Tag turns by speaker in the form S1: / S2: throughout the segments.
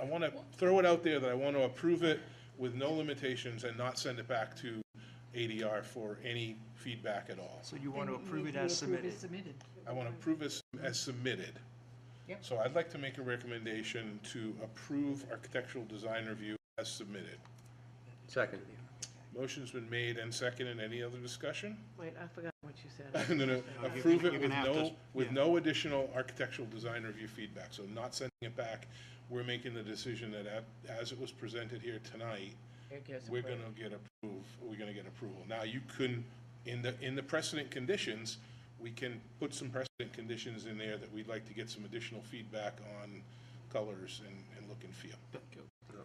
S1: I want to throw it out there that I want to approve it with no limitations and not send it back to ADR for any feedback at all.
S2: So you want to
S3: Then
S2: approve
S3: need
S2: it
S3: to
S2: as
S3: approve it
S2: submitted?
S3: Submitted.
S1: I want to approve it as submitted.
S3: Yep.
S1: So I'd like to make a recommendation to approve architectural design review as submitted.
S4: Second.
S1: Motion's been made and seconded. Any other discussion?
S5: Wait, I forgot what you said.
S1: I'm gonna approve it
S2: you're
S1: with
S2: gonna have to-
S1: no, with
S2: yeah.
S1: no additional architectural design review feedback, so not sending it back. We're making the decision that a- as it was presented here tonight,
S5: It gets
S1: we're
S5: approved.
S1: gonna get approved, we're gonna get approval. Now, you can, in the, in the precedent conditions, we can put some precedent conditions in there that we'd like to get some additional feedback on colors and, and look and feel.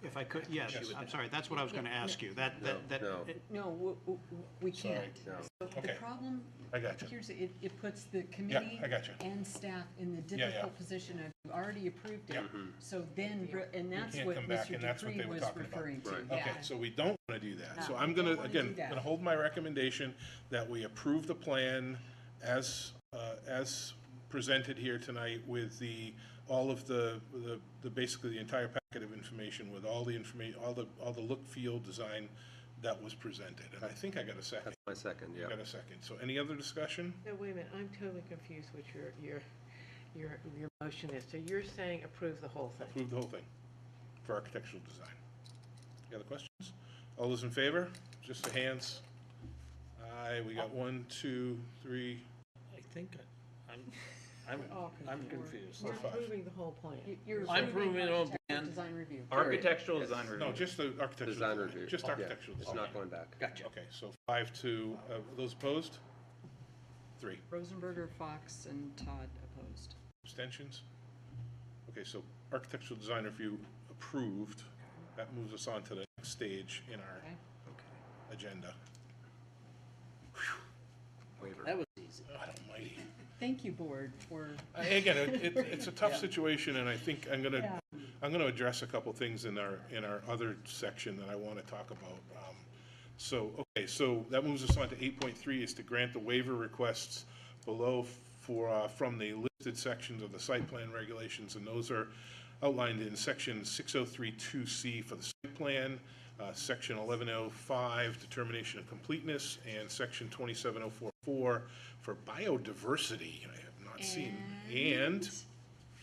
S2: If I could, yes, I'm sorry, that's what I was going to ask you. That, that, that,
S4: No,
S2: it-
S3: No, w- w- w- we can't. So The
S1: Okay.
S3: problem,
S1: I gotcha.
S3: here's, it, it puts the committee
S1: I gotcha.
S3: and staff in the
S1: yeah.
S3: difficult position of, you already approved it.
S1: Yeah.
S3: So then, re- and that's
S1: can't
S3: what
S1: come back,
S3: Mr.
S1: and that's what
S3: Dupree
S1: they were
S3: was
S1: talking about.
S3: referring to.
S4: Right.
S3: Yeah.
S1: Okay, so we don't want to do that. So
S3: No,
S1: I'm
S3: we
S1: going
S3: don't
S1: to,
S3: wanna
S1: again,
S3: do that.
S1: going to hold my recommendation that we approve the plan as, uh, as presented here tonight with the, all of the, the, the basically the entire packet of information with all the information, all the, all the look, feel, design that was presented. And I think I got a second.
S4: my second, yeah.
S1: I got a second. So any other discussion?
S5: No, wait a minute, I'm totally confused what your, your, your, your motion is. So you're saying approve the whole thing?
S1: Approve the whole thing for architectural design. Any other questions? All those in favor? Just the hands. Aye, we got one, two, three,
S6: I think I- I'm, I'm, I'm confused.
S5: You're
S1: five.
S5: approving the whole plan.
S3: You- You're
S6: I'm approving
S3: approving
S6: it on
S3: architectural
S6: plan.
S3: design review.
S6: Architectural
S4: Yes.
S6: design review.
S1: No, just the architectural.
S4: Design
S1: design.
S4: review.
S1: Just
S4: Yeah,
S1: architectural.
S4: It's
S1: design.
S4: not going back.
S6: Gotcha.
S1: Okay, so five to, uh, those opposed? Three.
S3: Rosenberger, Fox, and Todd opposed.
S1: Abstentions? Okay, so architectural design review approved. That moves us on to the next stage in our
S3: Okay.
S1: agenda.
S4: Waiver.
S1: God almighty.
S3: Thank you, board, for,
S1: I- Again, it, it- it's a tough situation, and I think I'm gonna, I'm gonna address a couple things in our, in our other section that I wanna talk about. Um, So, okay, so that moves us on to eight point three, is to grant the waiver requests below for, uh, from the listed sections of the site plan regulations, and those are outlined in section six oh three two C for the site plan, uh, section eleven oh five, determination of completeness, and section twenty-seven oh four four for biodiversity. I have not seen, and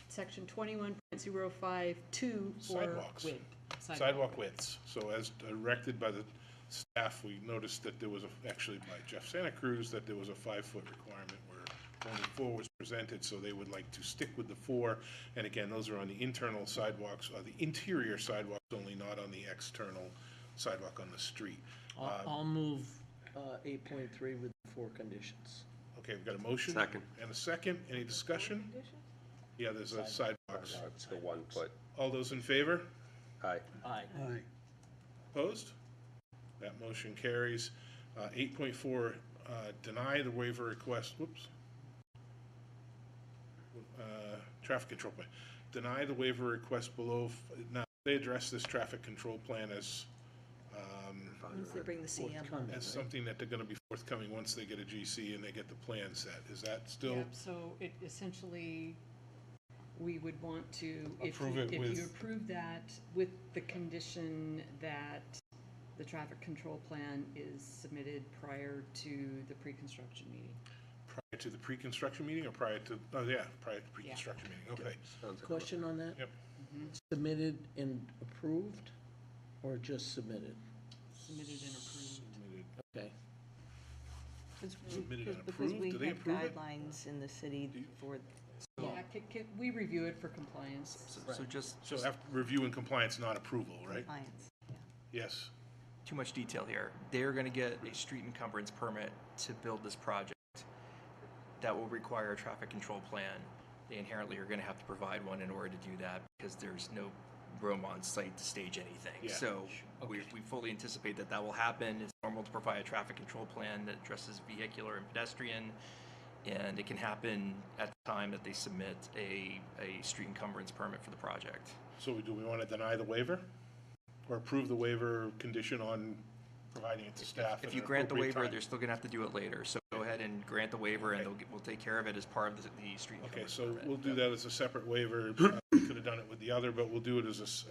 S3: section twenty-one point zero five two for
S1: Sidewalks.
S3: width.
S1: sidewalk widths. So as directed by the staff, we noticed that there was, a- actually by Jeff Santa Cruz, that there was a five-foot requirement where only four was presented, so they would like to stick with the four. And again, those are on the internal sidewalks, or the interior sidewalks only, not on the external sidewalk on the street.
S6: I'll, I'll move eight point three with four conditions.
S1: Okay, we've got a motion?
S4: Second.
S1: And a second. Any discussion? Yeah, there's a sidewalks.
S4: It's the one foot.
S1: All those in favor?
S4: Aye.
S6: Aye.
S1: Opposed? That motion carries. Uh, 8.4, uh, deny the waiver request, whoops. Uh, Traffic control plan. Deny the waiver request below, f- now, they address this traffic control plan as, um,
S3: Once they bring the CM.
S1: as something that they're going to be forthcoming once they get a GC and they get the plan set. Is that still?
S3: Yep, so it essentially, we would want to, if
S1: Approve
S3: you,
S1: it
S3: if you
S1: with-
S3: approve that with the condition that the traffic control plan is submitted prior to the pre-construction meeting.
S1: Prior to the pre-construction meeting or prior to, oh, yeah, prior to pre-construction meeting, okay.
S4: Sounds like-
S7: Question on that?
S1: Yep.
S7: Submitted and approved, or just submitted?
S3: Submitted and approved.
S7: Okay.
S1: Submitted and
S8: Because
S1: approved,
S8: we
S1: do they
S8: have
S1: approve it?
S8: guidelines in the city for
S3: Yeah, c- c- we review it for compliance.
S2: so so just,
S1: So after review and compliance, not approval, right?
S8: compliance.
S1: Yes.
S9: too much detail here. They're going to get a street encumbrance permit to build this project that will require a traffic control plan. They inherently are going to have to provide one in order to do that because there's no room on site to stage anything.
S1: Yeah.
S9: So we, we fully anticipate that that will happen. It's normal to provide a traffic control plan that addresses vehicular and pedestrian. And it can happen at the time that they submit a, a street encumbrance permit for the project.
S1: So do we want to deny the waiver? Or approve the waiver condition on providing it to staff?
S9: If
S1: at
S9: you
S1: an
S9: grant the
S1: appropriate
S9: waiver,
S1: time?
S9: they're still gonna have to do it later, so go ahead and grant the waiver and
S1: Okay.
S9: they'll, get- we'll take care of it as part of the, the street
S1: Okay,
S9: encumbrance
S1: so
S9: permit.
S1: we'll do that as a separate waiver, uh, we could have done it with the other, but we'll do it as a, s-